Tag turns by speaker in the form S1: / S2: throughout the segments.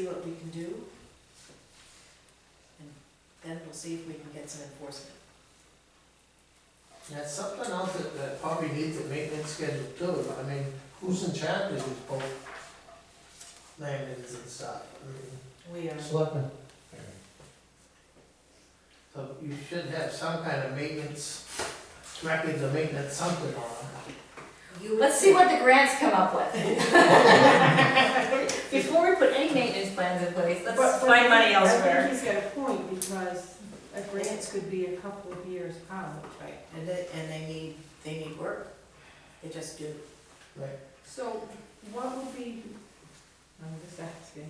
S1: you do. And then we'll see if we can get some enforcement.
S2: That's something else that, that probably needs a maintenance schedule too, I mean, who's in charge of these boat landings and stuff? I mean,
S1: We are.
S3: Selectmen.
S2: So you should have some kind of maintenance, records of maintenance, something on it.
S4: Let's see what the grants come up with. Before we put any maintenance plans in place, let's
S5: But- but
S4: find
S5: I
S4: money
S5: think- I
S4: elsewhere.
S5: think he's got a point, because a grant could be a couple of years out.
S1: Right, and they, and they need, they need work. They just do.
S5: So what would be, I'm just asking,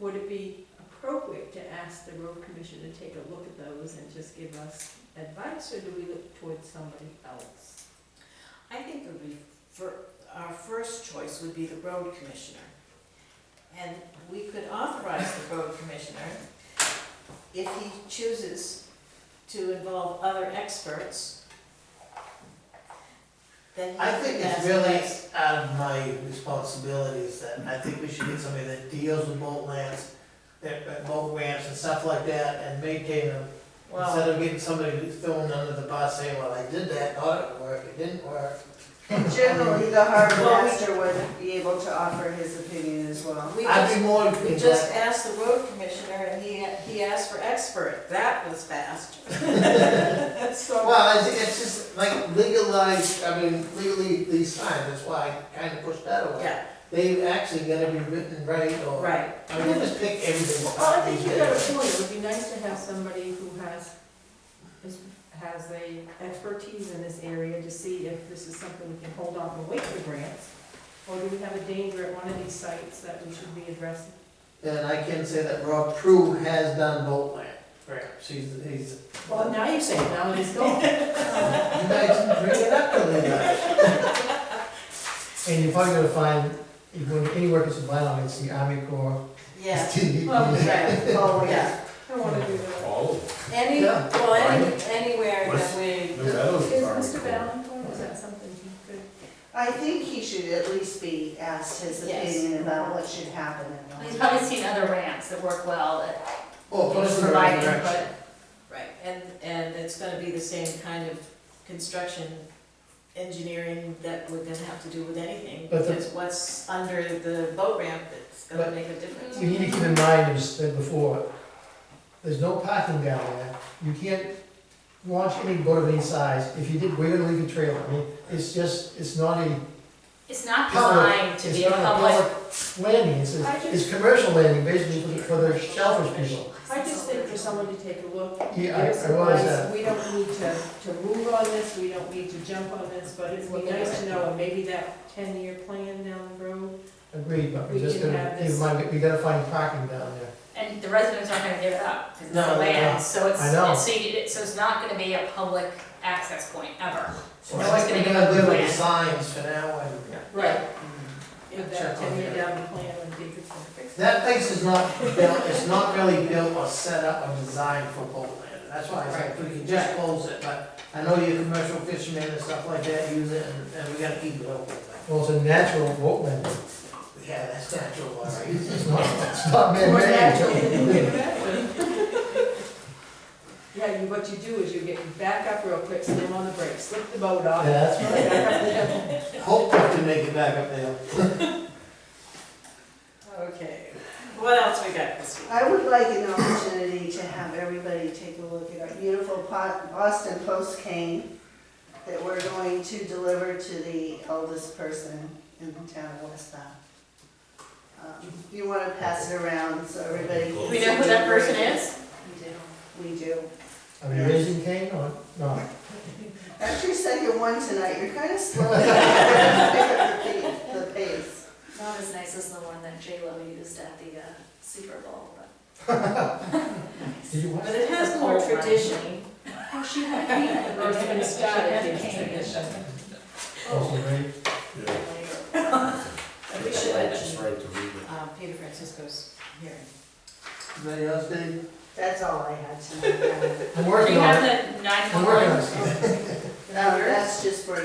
S5: would it be appropriate to ask the road commission to take a look at those and just give us advice, or do we look towards somebody else?
S1: I think it would be, for, our first choice would be the road commissioner. And we could authorize the road commissioner, if he chooses to involve other experts, then he
S2: I think
S1: could
S2: it's
S1: ask
S2: really
S1: us.
S2: out of my responsibilities that I think we should get somebody that deals with boat lands, that, that boat ramps and stuff like that, and maintain them. Instead
S1: Well,
S2: of getting somebody who's thrown under the bus saying, well, I did that, thought it worked, it didn't work.
S6: Generally, the harbor
S1: Well, we-
S6: master would be able to offer his opinion as well.
S1: we
S2: I'd
S1: just,
S2: be more.
S1: we just asked the road commissioner and he, he asked for expert. That was fast.
S6: So,
S2: Well, it's, it's just like legalized, I mean, legally, these signs, that's why I kinda pushed that away.
S1: Yeah,
S2: They actually gotta be written right, or,
S1: right.
S2: I mean, just pick everything. up
S5: Well, I think you
S2: these
S5: got
S2: days.
S5: a point, it would be nice to have somebody who has, is- has a expertise in this area to see if this is something we can hold off and wait for grants. Or do we have a danger at one of these sites that we should be addressing?
S2: And I can say that Rob Prue has done boat land, perhaps, he's, he's,
S5: Well, now you're saying, now it's gone.
S2: you guys didn't bring it up to me.
S3: And you're probably gonna find, if when anywhere gets a blind on, it's the Army Corps.
S1: Yeah,
S3: It's DDP.
S5: Well,
S1: right,
S6: oh, yeah.
S1: yeah.
S5: I wanna do that.
S7: All of
S1: Any,
S2: Yeah.
S1: well, any, anywhere that
S7: What's-
S1: we,
S7: them, the Meadows
S5: Is
S7: are-
S5: Mr. Valencourt, is that something he could?
S6: I think he should at least be asked his
S1: Yes.
S6: opinion about what should happen in the
S4: He's probably seen other ramps that work well, that
S2: Oh, put us in the right
S4: provide
S2: direction.
S4: input.
S1: right, and, and it's gonna be the same kind of construction engineering that we're gonna have to do with anything,
S3: But the-
S1: because what's under the boat ramp that's gonna
S3: But-
S1: make a difference.
S3: We need to keep in mind, as said before, there's no parking down there. You can't launch any boat of any size. If you did, we're gonna leave a trail. I mean, it's just, it's not a,
S4: It's not
S3: Public.
S4: designed to
S3: it's
S4: be a
S3: not a
S4: public.
S3: public landing. It's, a-
S5: I just-
S3: it's commercial landing, basically for the- for the shellfish people.
S5: I just think for someone to take a look.
S3: Yeah, I,
S5: give us
S3: I realize
S5: advice.
S3: that.
S5: We don't need to, to move on this, we don't need to jump on this, but it would be nice to know, and maybe that ten-year plan down the road.
S3: Agreed, but
S5: We
S3: we just
S5: can
S3: gotta
S5: have
S3: keep in
S5: this-
S3: mind, we gotta find parking down there.
S4: And the residents aren't gonna give it up, because it's
S2: No,
S4: the
S2: no,
S4: land,
S2: no.
S4: so it's,
S3: I know.
S4: and so you, so it's not gonna be a public access point ever.
S2: So
S4: No
S2: I
S4: one's
S2: think
S4: gonna give
S2: we're gonna
S4: up the
S2: live with the
S4: land.
S2: signs for now, and
S5: Right.
S2: Yeah,
S5: With that
S2: check on
S5: ten-year
S2: that.
S5: down the plan and dig it for it.
S2: That place is not built, it's not really built or set up or designed for boat landing, that's why I said, we can just close it, but I know your commercial fishermen and stuff like that use it, and, and we gotta keep it open. but,
S3: Well, it's a natural boat landing.
S2: Yeah, that's natural, all right.
S3: It's not, it's not
S5: Or
S3: man-made.
S5: naturally, Yeah, you, what you do is you get, you back up real quick, slam on the brakes, slip the boat
S3: Yeah,
S5: off.
S3: that's right.
S5: back up the hill.
S2: Hope we can make it back up there.
S1: Okay, what else we got this week?
S6: I would like an opportunity to have everybody take a look at our beautiful Po- Boston Post cane that we're going to deliver to the oldest person in the town of West Bath. Um, You want to pass it around so everybody.
S4: Do
S6: can
S4: we know who
S6: see
S4: that
S6: where it
S4: person is?
S6: We do.
S3: Are we raising cane or not?
S6: After your second one tonight, you're kind of slow. You have to pick up the pa- The pace.
S4: Not as nice as the one that J Lo used at the uh, Super Bowl, but.
S3: Did you watch?
S1: But it has more tradition.
S4: Oh, she had pain.
S5: Or it's been started.
S4: She had pain.
S3: Oh, it's great.
S7: Yeah.
S1: We should
S7: It's
S1: mention,
S7: right to read it.
S1: uh, Peter Francisco's hearing.
S2: Anybody else, Dave?
S6: That's all I had tonight.
S3: I'm
S4: Do
S3: working
S4: you
S3: on it.
S4: have the nine
S3: I'm
S4: one one?
S3: working on it.
S6: Um, That's just for